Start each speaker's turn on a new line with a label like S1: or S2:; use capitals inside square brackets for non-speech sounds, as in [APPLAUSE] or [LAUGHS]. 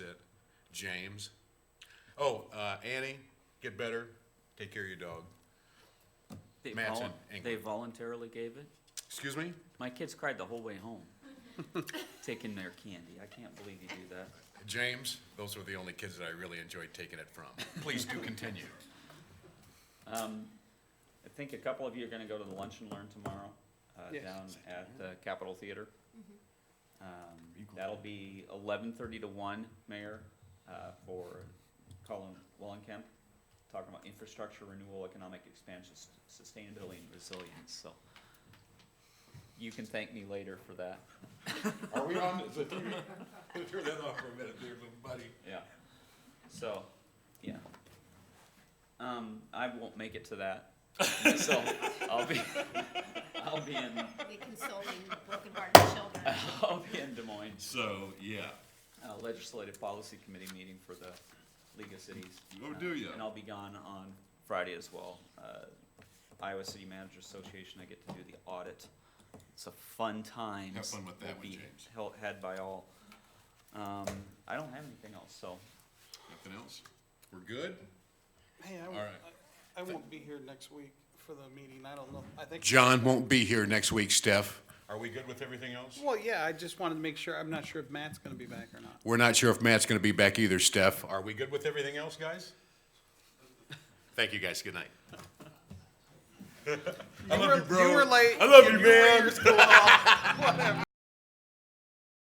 S1: James. Oh, uh, Annie, get better, take care of your dog.
S2: They
S1: Matt's
S2: volun-
S1: in England.
S2: They voluntarily gave it?
S1: Excuse me?
S2: My kids cried the whole way home, [LAUGHS] taking their candy. I can't believe you do that.
S1: James, those were the only kids that I really enjoyed taking it from. Please do continue.
S2: Um, I think a couple of you are gonna go to the Lunch and Learn tomorrow, uh,
S3: Yes.
S2: down at the Capitol Theater. Um,
S1: Eagle.
S2: that'll be eleven thirty to one, Mayor, uh, for Colin Wallenkemp, talking about infrastructure renewal, economic expansion, s- sustainability and resilience, so. You can thank me later for that,
S1: [LAUGHS] Are we on? so turn- Turn that off for a minute there, little buddy.
S2: yeah. So, yeah. Um, I won't make it
S1: [LAUGHS]
S2: to that, so I'll be, I'll be in,
S4: be consoling broken-hearted children.
S2: I'll be in Des Moines.
S5: So, yeah.
S2: uh, Legislative Policy Committee meeting for the League of Cities.
S5: Oh,
S2: Uh,
S5: do ya?
S2: And I'll be gone on Friday as well. Uh, Iowa City Managers Association, I get to do the audit. It's a fun time.
S1: Have fun with that one,
S2: Will be
S1: James.
S2: held- Had by all. Um, I don't have anything else, so
S1: Nothing else? We're good?
S3: Hey, I,
S1: All
S3: won't-
S1: right.
S3: I I won't be here next week for the meeting, I don't know, I think.
S1: John won't be here next week, Steph. Are we good with everything else?
S3: Well, yeah, I just wanted to make sure, I'm not sure if Matt's gonna be back or not.
S1: We're not sure if Matt's gonna be back either, Steph. Are we good with everything else,
S2: [LAUGHS]
S1: guys? Thank you, guys. Good night.
S3: I love you, bro. You were late.
S5: I love you, man.
S3: Yours go off. Whatever.